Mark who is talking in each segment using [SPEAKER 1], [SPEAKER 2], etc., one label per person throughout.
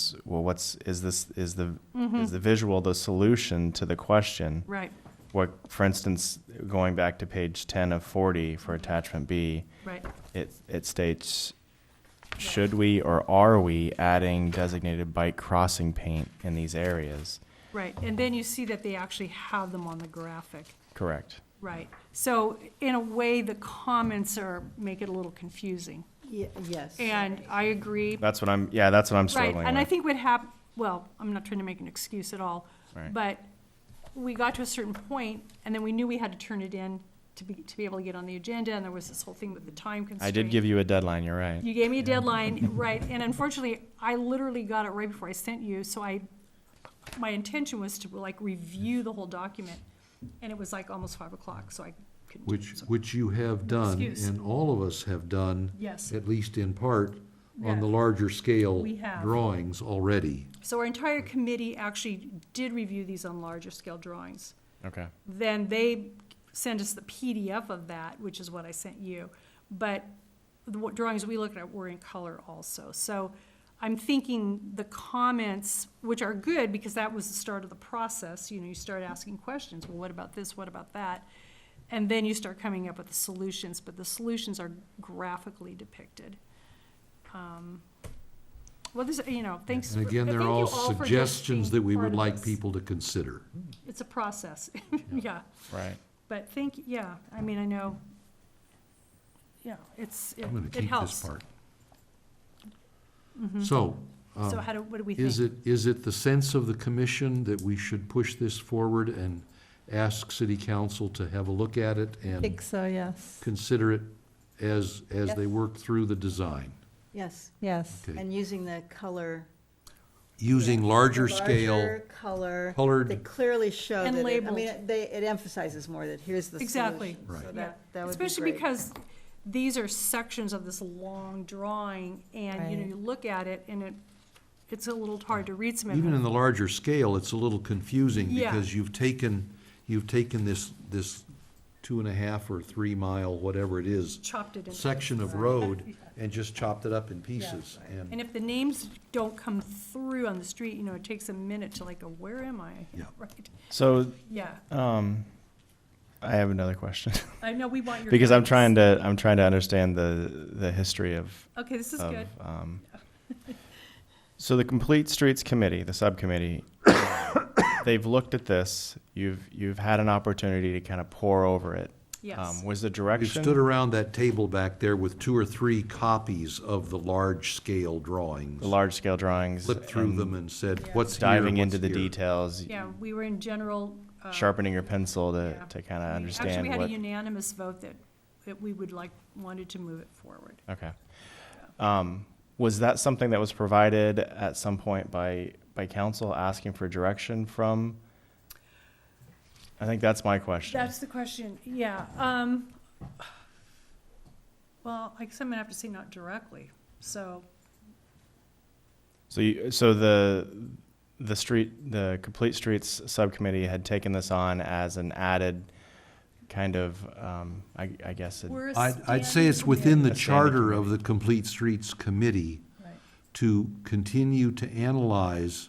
[SPEAKER 1] is, well, what's, is this, is the,
[SPEAKER 2] Mm-hmm.
[SPEAKER 1] is the visual the solution to the question?
[SPEAKER 2] Right,
[SPEAKER 1] What, for instance, going back to page ten of forty for attachment B,
[SPEAKER 2] right.
[SPEAKER 1] it, it states, should we or are we adding designated bike crossing paint in these areas?
[SPEAKER 2] Right, and then you see that they actually have them on the graphic,
[SPEAKER 1] Correct.
[SPEAKER 2] right? So in a way, the comments are, make it a little confusing.
[SPEAKER 3] Ye- Yes.
[SPEAKER 2] And uh, I agree.
[SPEAKER 1] That's what I'm, yeah, that's what I'm
[SPEAKER 2] Right,
[SPEAKER 1] struggling with.
[SPEAKER 2] and I think what hap, well, I'm not trying to make an excuse at all,
[SPEAKER 1] Right.
[SPEAKER 2] but we got to a certain point, and then we knew we had to turn it in to be, to be able to get on the agenda, and there was this whole thing with the time constraint.
[SPEAKER 1] I did give you a deadline, you're right.
[SPEAKER 2] You gave me a deadline, right, and unfortunately, I literally got it right before I sent you, so I, my intention was to like review the whole document, and it was like almost five o'clock, so I couldn't. do it,
[SPEAKER 4] Which,
[SPEAKER 2] so-
[SPEAKER 4] which you have done,
[SPEAKER 2] excuse.
[SPEAKER 4] and all of us have done,
[SPEAKER 2] Yes,
[SPEAKER 4] at least in part, on the
[SPEAKER 2] Yeah.
[SPEAKER 4] larger scale
[SPEAKER 2] We have.
[SPEAKER 4] drawings already.
[SPEAKER 2] so our entire committee actually did review these on larger scale drawings.
[SPEAKER 1] Okay.
[SPEAKER 2] Then they sent us the PDF of that, which is what I sent you, but the wa- drawings we looked at were in color also, so I'm thinking the comments, which are good, because that was the start of the process, you know, you start asking questions, well, what about this, what about that? And then you start coming up with the solutions, but the solutions are graphically depicted. Um, Well, this, you know, thanks.
[SPEAKER 4] And
[SPEAKER 2] for-
[SPEAKER 4] again,
[SPEAKER 2] I
[SPEAKER 4] they're
[SPEAKER 2] thank you
[SPEAKER 4] all
[SPEAKER 2] for just being
[SPEAKER 4] suggestions that we
[SPEAKER 2] part
[SPEAKER 4] would
[SPEAKER 2] of
[SPEAKER 4] like
[SPEAKER 2] this.
[SPEAKER 4] people to consider.
[SPEAKER 2] It's a process, yeah.
[SPEAKER 1] Right.
[SPEAKER 2] But think, yeah, I mean, I know, yeah, it's, it
[SPEAKER 4] I'm gonna
[SPEAKER 2] it
[SPEAKER 4] keep this
[SPEAKER 2] helps. Mm-hmm.
[SPEAKER 4] part. So,
[SPEAKER 2] So
[SPEAKER 4] um,
[SPEAKER 2] how do, what do we
[SPEAKER 4] is
[SPEAKER 2] think?
[SPEAKER 4] it, is it the sense of the commission that we should push this forward and ask city council to have a look at it
[SPEAKER 3] I
[SPEAKER 4] and
[SPEAKER 3] think so, yes,
[SPEAKER 4] consider it as, as they
[SPEAKER 3] Yes.
[SPEAKER 4] work through the design?
[SPEAKER 3] yes.
[SPEAKER 5] Yes.
[SPEAKER 4] Okay.
[SPEAKER 3] And using the color.
[SPEAKER 4] Using larger scale,
[SPEAKER 3] Larger color.
[SPEAKER 4] colored-
[SPEAKER 3] That clearly show
[SPEAKER 2] And
[SPEAKER 3] that, it- I
[SPEAKER 2] labeled.
[SPEAKER 3] mean, it- they, it emphasizes more that here's the
[SPEAKER 2] Exactly.
[SPEAKER 3] solution.
[SPEAKER 4] Right.
[SPEAKER 3] So
[SPEAKER 2] Yeah,
[SPEAKER 3] that, that would be
[SPEAKER 2] Especially
[SPEAKER 3] great.
[SPEAKER 2] because these are sections of this long drawing, and, you know,
[SPEAKER 5] Right.
[SPEAKER 2] you look at it, and it, it's a little hard to read some of
[SPEAKER 4] even in
[SPEAKER 2] it.
[SPEAKER 4] the larger scale, it's a little confusing
[SPEAKER 2] Yeah.
[SPEAKER 4] because you've taken, you've taken this, this two and a half or three mile, whatever it is,
[SPEAKER 2] Chopped it in.
[SPEAKER 4] section of road and just chopped it up in pieces. And,
[SPEAKER 2] And if the names don't come through on the street, you know, it takes a minute to like, go, where am I?
[SPEAKER 4] Yeah.
[SPEAKER 2] Right,
[SPEAKER 1] So,
[SPEAKER 2] yeah,
[SPEAKER 1] um, I have another question
[SPEAKER 2] I know, we want your.
[SPEAKER 1] because I'm trying
[SPEAKER 2] guidance.
[SPEAKER 1] to, I'm trying to understand the, the history of,
[SPEAKER 2] Okay, this is
[SPEAKER 1] of,
[SPEAKER 2] good,
[SPEAKER 1] um, so the Complete Streets Committee, the subcommittee, they've looked at this. You've, you've had an opportunity to kind of pour over it.
[SPEAKER 2] yes,
[SPEAKER 1] Um, was the
[SPEAKER 4] we
[SPEAKER 1] direction?
[SPEAKER 4] stood around that table back there with two or three copies of the large scale drawings.
[SPEAKER 1] the large scale drawings.
[SPEAKER 4] Flipped through
[SPEAKER 1] and
[SPEAKER 4] them and said, what's here,
[SPEAKER 1] Diving into
[SPEAKER 4] what's
[SPEAKER 1] the
[SPEAKER 4] here?"
[SPEAKER 1] details,
[SPEAKER 2] yeah, we were in general. uh,
[SPEAKER 1] sharpening your pencil to,
[SPEAKER 2] Yeah.
[SPEAKER 1] to kind of
[SPEAKER 2] We-
[SPEAKER 1] understand
[SPEAKER 2] Actually, we had
[SPEAKER 1] what.
[SPEAKER 2] a unanimous vote that, that we would like, wanted to move it forward.
[SPEAKER 1] Okay. Um, was that something that was provided at some point by, by council asking for direction from? I think that's my question.
[SPEAKER 2] That's the question, yeah. um, Well, I guess I'm gonna have to say not directly, so,
[SPEAKER 1] So you, so the, the street, the Complete Streets Subcommittee had taken this on as an added kind of, um, I, I guess. it-
[SPEAKER 2] we're a
[SPEAKER 4] I'd, I'd say it's within the
[SPEAKER 1] A standing
[SPEAKER 4] charter of the Complete Streets Committee to continue to analyze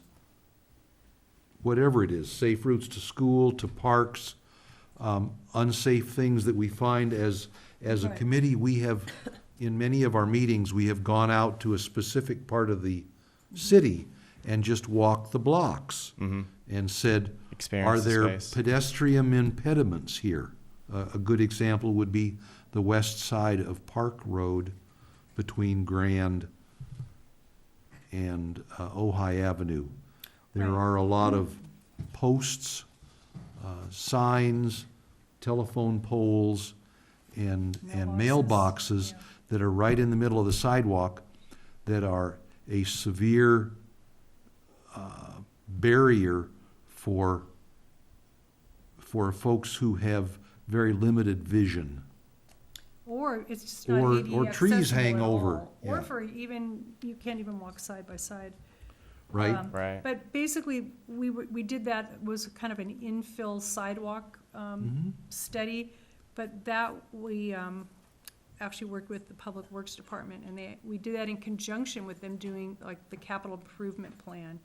[SPEAKER 4] whatever it is, safe routes to school, to parks, um, unsafe things that we find as, as a
[SPEAKER 2] Right.
[SPEAKER 4] committee, we have, in many of our meetings, we have gone out to a specific part of the city and just walked the blocks and said, are
[SPEAKER 1] Experience the
[SPEAKER 4] there
[SPEAKER 1] space."
[SPEAKER 4] pedestrian impediments here? A a good example would be the west side of Park Road between Grand and uh, Ojai Avenue. There
[SPEAKER 2] Right.
[SPEAKER 4] are a lot of posts, uh, signs, telephone poles, and, and mailboxes that are right in the middle of the sidewalk that are a severe uh, barrier for, for folks who have very limited vision.
[SPEAKER 2] Or it's just not
[SPEAKER 4] Or-
[SPEAKER 2] ADA
[SPEAKER 4] or trees
[SPEAKER 2] accessible
[SPEAKER 4] hang
[SPEAKER 2] at
[SPEAKER 4] over,
[SPEAKER 2] all. Or
[SPEAKER 4] yeah.
[SPEAKER 2] for even, you can't even walk side by side.
[SPEAKER 4] Right.
[SPEAKER 2] Um,
[SPEAKER 1] Right.
[SPEAKER 2] But basically, we, w- we did that, was kind of an
[SPEAKER 4] Mm-hmm.
[SPEAKER 2] infill sidewalk um, study, but that we um, actually worked with the Public Works Department, and they, we did that in conjunction with them doing like the capital improvement plan.